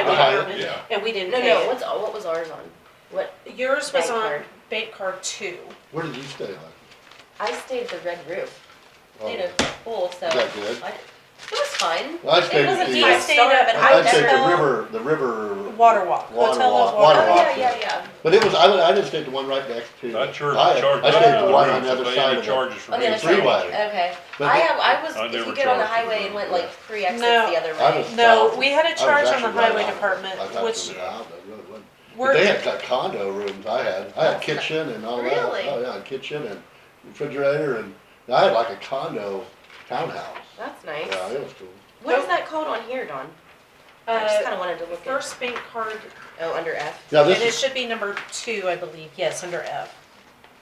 in the Uh-huh. apartment, Yeah. and we didn't No, pay no, it. what's, uh, what was ours on? What, Yours Bank was on card. bank card two. Where did you stay on? I stayed the red roof, Oh, did a pool, so. Is that good? I- It was fine. Well, I stayed It wasn't at the the, uh, best star, but I I I'd say the never. river, the river. Water walk. Water Hotel walk, of water water Oh, walk. yeah, yeah, yeah. But it was, I, I just stayed the one right next to. Not sure if I- they charge I us stayed for the the one on rooms, the other if they side any of it. charges for On Oh, the the other Three side, three-way. way. okay. But I the- have, I was, I if you never get on the charged highway the and went road, like yeah. three exits No, the other I way. was No, south. we had a I was charge on actually the right highway on it. department, I thought which it was out, but it really wasn't. But were, they had got condo rooms I had. I had kitchen and all that. Really? Oh, yeah, kitchen and refrigerator and, I had like a condo townhouse. That's nice. Yeah, it was cool. What is that called on here, Dawn? I just uh, kinda wanted to look at, first bank card, oh, under F. Now, and this it is should be number two, I believe, yes, under F.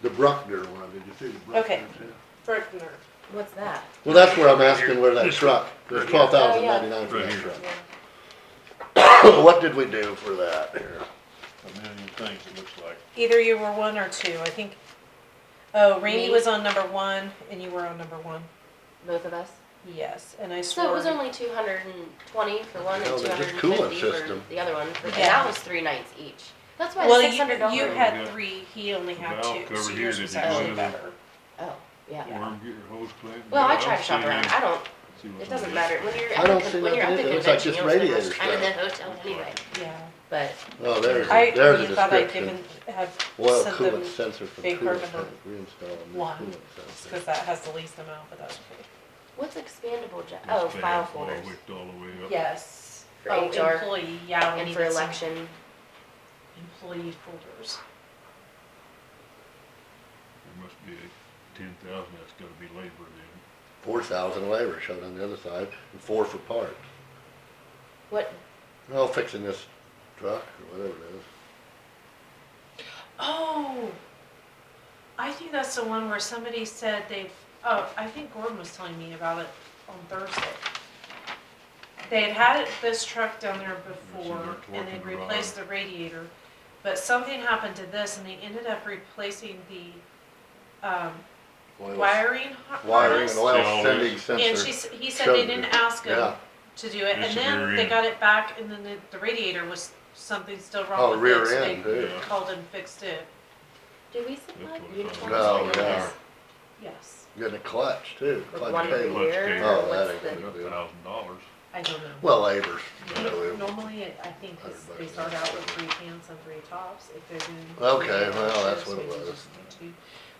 the Bruckner one. Did you see the Bruckner? Okay. too? Bruckner. What's that? Well, that's where I'm asking where that truck, Right there's here. twelve Oh, thousand ninety-nine for Right that here. truck. What did we do for that here? A million things, it looks like. Either you were one or two, I think. Oh, Randy Me? was on number one, and you were on number one, Both of us? yes, and I swore. So it was only two hundred and twenty for one No, and two there's a hundred and coolant fifty for system. the other one, for- and Yeah. that was three nights each. That's why Well, it's six you, hundred dollars. you We had got- three, he only had Well, two, over so here, yours did was you actually go to the- better. Oh, yeah. Worm, get your hose clipped. Well, I Yeah, try to shop see around. you. I don't, See what's it on doesn't the- matter. When you're I at don't the, see con- when you're at the nothing either. It looks like convention, just you don't spend radiator much time in the stuff. hotel anyway, Yeah. but. Oh, there's, I a- there's a really thought I'd description. given, have Oil sent them, coolant sensor for big coolant carbon tank, one, reinstall a new just coolant cause sensor. that has the least amount, but that's okay. What's expandable jo- It's oh, bad, file it's all folders. wicked all the way up. Yes. For Oh, HR Employee, yeah, we And need for some election, employee folders. There must be ten thousand, that's gotta be labor then. Four thousand labor showed on the other side, and four for parts. what, Oh, fixing this truck or whatever it is. Oh, I think that's the one where somebody said they've, oh, I think Gordon was telling me about it on Thursday. They had had it- this truck down there before they're and they torquing the replaced the radiator, but something happened to this and they ended up replacing the, um, Oil- wiring har- Wiring harness. and oil Yeah, sending And she, sensor. s- he said they showed didn't it. ask him Yeah. to do it, It's and the then rear they end. got it back, and then the, the radiator was, something still Oh, wrong with it, rear so end, they too. Yeah. called and fixed it, do we supply That's what I uniforms? thought. or No, not? no. yes, Getting a clutch too. With clutch one per cable. year, Clutch or cable. Oh, what's that the- ain't Like a thousand dollars. I don't know. Well, labor's. you know, it- Normally, it- I think it's- Hundred they bucks. start out with three cans and three tops if they're doing. Okay, well, that's what it Maybe was. just two.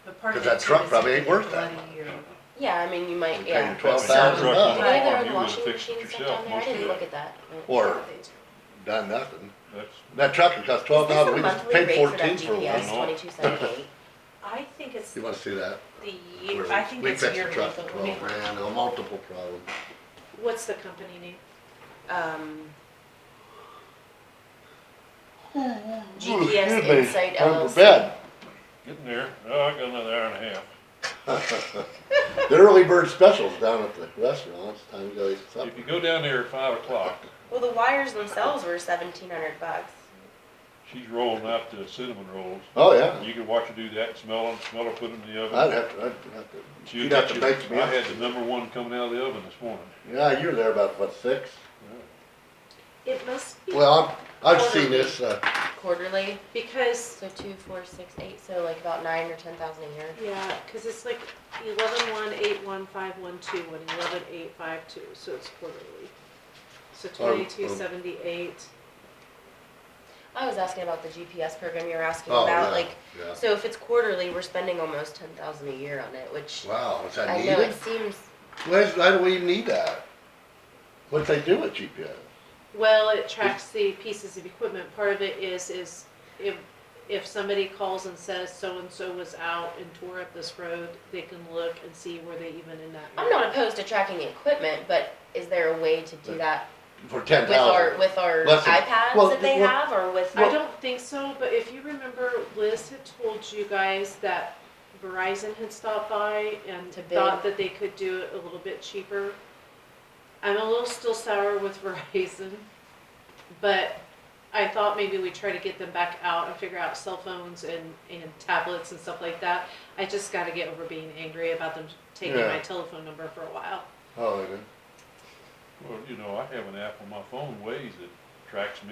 But part 'Cause of that it too truck is probably if ain't you worth that let much. it year- Yeah, I mean, you We're miag paying yeah. twelve That thousand truck was Do bucks. all- Either You on would've washing fixed it machines stuff yourself down there, I most of didn't that. look at that. Or they do. done nothing. That's, That truck that cost twelve thousand, uh, we just paid fourteen Is this for a monthly one. rate for that GPS twenty-two seventy-eight? I think it's You wanna see that? the, Where year- I think we it's yearly. fixed the truck for but twelve maybe- grand, a multiple problem. What's the company name? Um, Excuse GPS me, Insight I'm for LLC. bed. getting there. Oh, I got another hour and a half. The early bird specials down at the restaurant, it's time to go eat If you supper. go down there at five o'clock, Well, the wires themselves were seventeen hundred bucks. she's rolling out the cinnamon rolls. Oh, yeah, You can watch her do that, smell them, smell her put them in the oven. I'd have to, I'd have to, She'll you'd have get to you- make me. I had the number one coming out of the oven this morning. Yeah, you were there about, what, six? It must be, Well, I've, I've seen this, uh, Quarterly, because, so two, four, six, eight, so like about nine or ten thousand a year. yeah, cause it's like eleven one eight one five one two and eleven eight five two, so it's quarterly. So twenty-two seventy-eight. I was asking about the GPS program you were asking oh, about, yeah, like, yeah. so if it's quarterly, we're spending almost ten thousand a year on it, which Wow, is that I know needed? it seems, Why, why do we even need that? What'd they do with GPS? Well, it tracks the pieces of equipment. Part of it is, is if, if somebody calls and says so-and-so was out and tore up this road, they can look and see were they even in that. I'm not opposed to tracking the equipment, but is there a way to do that For ten with our, thousand? with our Listen, well, iPads that they well- have, or with? I don't think so, but if you remember, Liz had told you guys that Verizon had stopped by and To bid. thought that they could do it a little bit cheaper. I'm a little still sour with Verizon, but I thought maybe we try to get them back out and figure out cell phones and, and tablets and stuff like that. I just gotta get over being angry about them taking my Yeah. telephone number for a while. Oh, yeah. Well, you know, I have an app on my phone, Waze, that tracks me.